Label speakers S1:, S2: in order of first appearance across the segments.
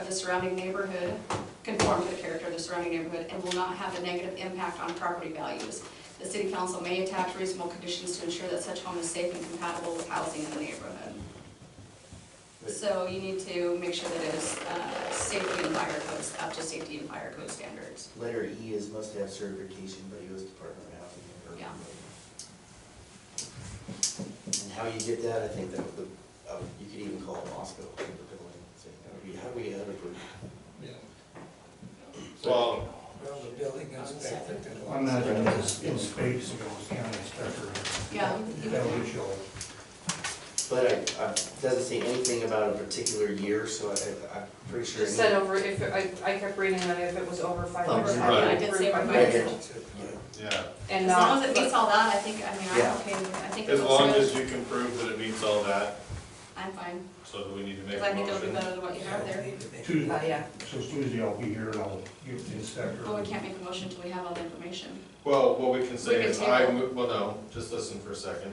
S1: of the surrounding neighborhood, conform to the character of the surrounding neighborhood, and will not have a negative impact on property values. The city council may attach reasonable conditions to ensure that such home is safe and compatible with housing in the neighborhood. So you need to make sure that it is uh, safety and fire codes, up to safety and fire code standards.
S2: Letter E is must have certification by US Department of Housing and Urban
S1: Yeah.
S2: Development. And how you get that, I think that the, uh, you could even call it Moscow, the building, saying, how do we, how do we have it approved?
S3: Well,
S4: Well, the building inspector. did
S5: I'm not in this, in space, you know, county inspector.
S1: Yeah.
S5: That would show.
S2: But I, I, it doesn't say anything about a particular year, so I, I- I'm pretty sure.
S6: Just said over, if, it- I, I kept reading that if it was over five
S2: Over
S6: hundred.
S2: five,
S1: I did say over
S2: Oh, Right here.
S4: Right.
S3: yeah,
S6: And uh,
S1: As long as
S6: not,
S1: it meets all that, I think, I mean,
S2: Yeah.
S1: I'm okay, with it. I think. it
S3: as
S1: looks
S3: long
S1: good.
S3: as you can prove that it meets all that,
S1: I'm fine,
S3: so do we need to make
S1: because I
S3: a
S1: think it'll be
S3: motion.
S1: better than what you have there.
S5: Tuesday,
S6: uh, yeah,
S5: so Tuesday I'll be here and I'll give the inspector.
S1: But we Oh, can't make a motion until we have all the information.
S3: Well, what we can
S1: We
S3: say
S1: can
S3: is, I,
S1: table.
S3: mo- well, no, just listen for a second.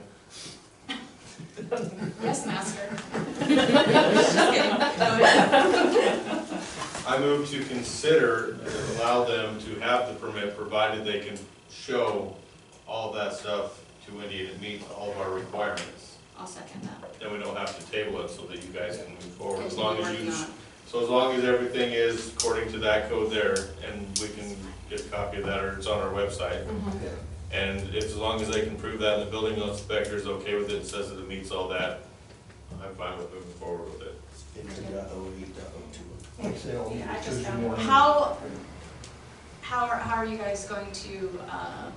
S1: Yes, master. Just kidding. No, yeah.
S3: I move to consider, and allow them to have the permit, provided they can show all that stuff to Wendy and it meets all of our requirements.
S1: I'll second that.
S3: Then we don't have to table it so that you guys can move forward,
S1: Continue
S3: as long as
S1: working
S3: you,
S1: on it.
S3: so as long as everything is according to that code there, and we can get a copy of that, or it's on our website. And if, as long as they can prove that, and the building inspector is okay with it, and says that it meets all that, I'm fine with moving forward with it.
S2: Fifteen dot oh eight dot oh two.
S5: Like I say, I'll be
S1: Yeah, I just
S5: Tuesday
S1: found one.
S5: morning.
S1: How, how are, how are you guys going to uh,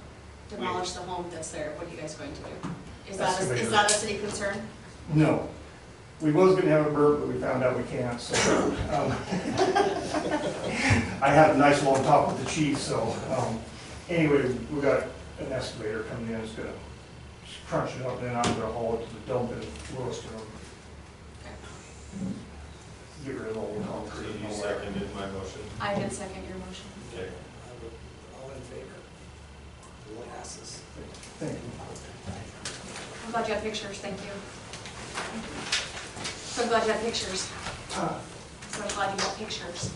S1: demolish the home that's there? What are you guys going to do? Is that, a- is
S5: Excavator.
S1: that a city concern?
S5: No. We was gonna have a burp, but we found out we can't, so. um, I had a nice long talk with the chief, so, um, anyway, we got an excavator coming in, it's gonna crunch it up, and then I'm gonna haul it to the dump in Lewiston. Get rid of all the
S3: So
S5: concrete and
S3: you
S5: all that.
S3: seconded my motion?
S1: I can second your motion.
S3: Okay.
S4: All in favor? Passes.
S5: Thank you.
S1: I'm glad you have pictures, thank you. So glad you have pictures. So glad you have pictures.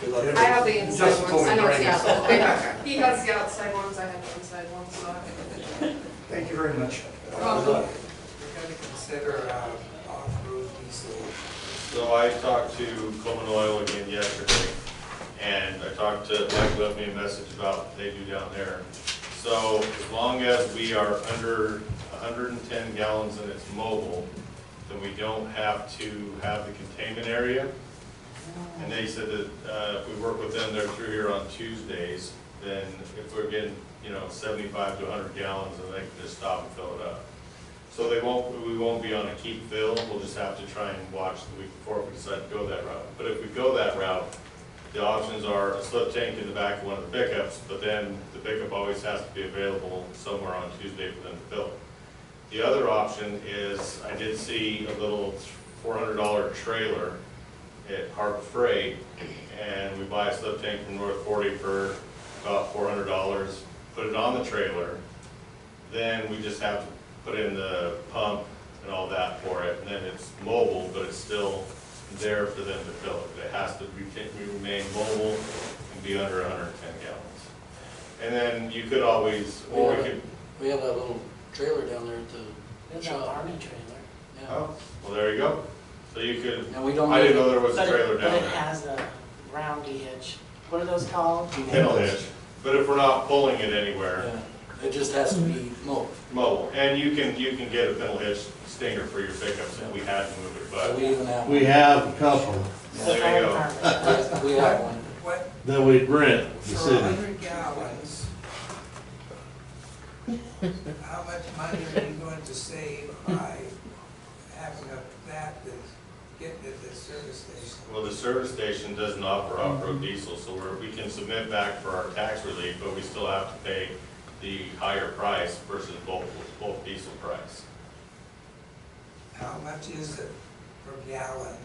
S2: Good
S6: I
S2: luck.
S6: have the inside
S5: Justin told
S6: ones.
S5: me
S1: I
S5: to
S1: know it's
S5: bring
S1: the
S5: it.
S1: outside.
S6: He has the outside ones, I have the inside ones, so I have the
S5: Thank you very much.
S4: We're
S1: welcome.
S4: gonna consider uh, off-road diesel.
S3: So I talked to Coleman Oil again yesterday, and I talked to, Mike left me a message about what they do down there. So as long as we are under hundred and ten gallons and it's mobile, then we don't have to have the containment area. And they said that, uh, if we work with them, they're through here on Tuesdays, then if we're getting, you know, seventy-five to hundred gallons, then they can just stop and fill it up. So they won't, we won't be on a keep fill, we'll just have to try and watch the week before if we decide to go that route. But if we go that route, the options are a slip tank in the back of one of the pickups, but then the pickup always has to be available somewhere on Tuesday for them to fill. The other option is, I did see a little four hundred dollar trailer at Harbor Freight, and we buy a slip tank from North Forty for about four hundred dollars, put it on the trailer, then we just have to put in the pump and all that for it, and then it's mobile, but it's still there for them to fill it. But It has to retain- remain mobile and be under hundred and ten gallons. And then you could always, or we could,
S7: We have that little trailer down there at the
S4: Is that
S7: shop.
S4: army trailer?
S7: Yeah.
S3: oh, well, there you go. So you could,
S7: And we don't.
S3: I didn't
S7: need-
S3: know there was a
S8: But it-
S3: trailer down
S8: But it
S3: there.
S8: has a roundy hitch. What are those called?
S3: Kennel hitch, but if we're not pulling it anywhere,
S7: Yeah. It just has to be mowed.
S3: mobile, and you can, you can get a kennel hitch stinger for your pickups if we had to move it,
S7: So
S3: but
S7: we even have, we
S9: We have a couple
S3: there you go.
S7: we have one.
S4: What,
S9: that we rent the
S4: for a
S9: city.
S4: hundred gallons, how much money are you going to save by having a- that than getting it at the service station?
S3: Well, the service station doesn't offer off-road diesel, so we're, we can submit back for our tax relief, but we still have to pay the higher price versus bulk, bulk diesel price.
S4: How much is it per gallon?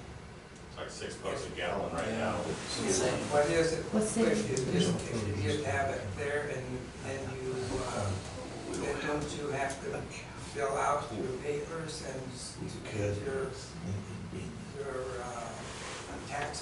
S3: It's like six bucks a gallon right now.
S7: It's insane.
S4: What is it?
S10: What's it?
S4: If you just, if you just have it there and then you, uh, then don't you have to fill out your papers and s- your, your, uh, tax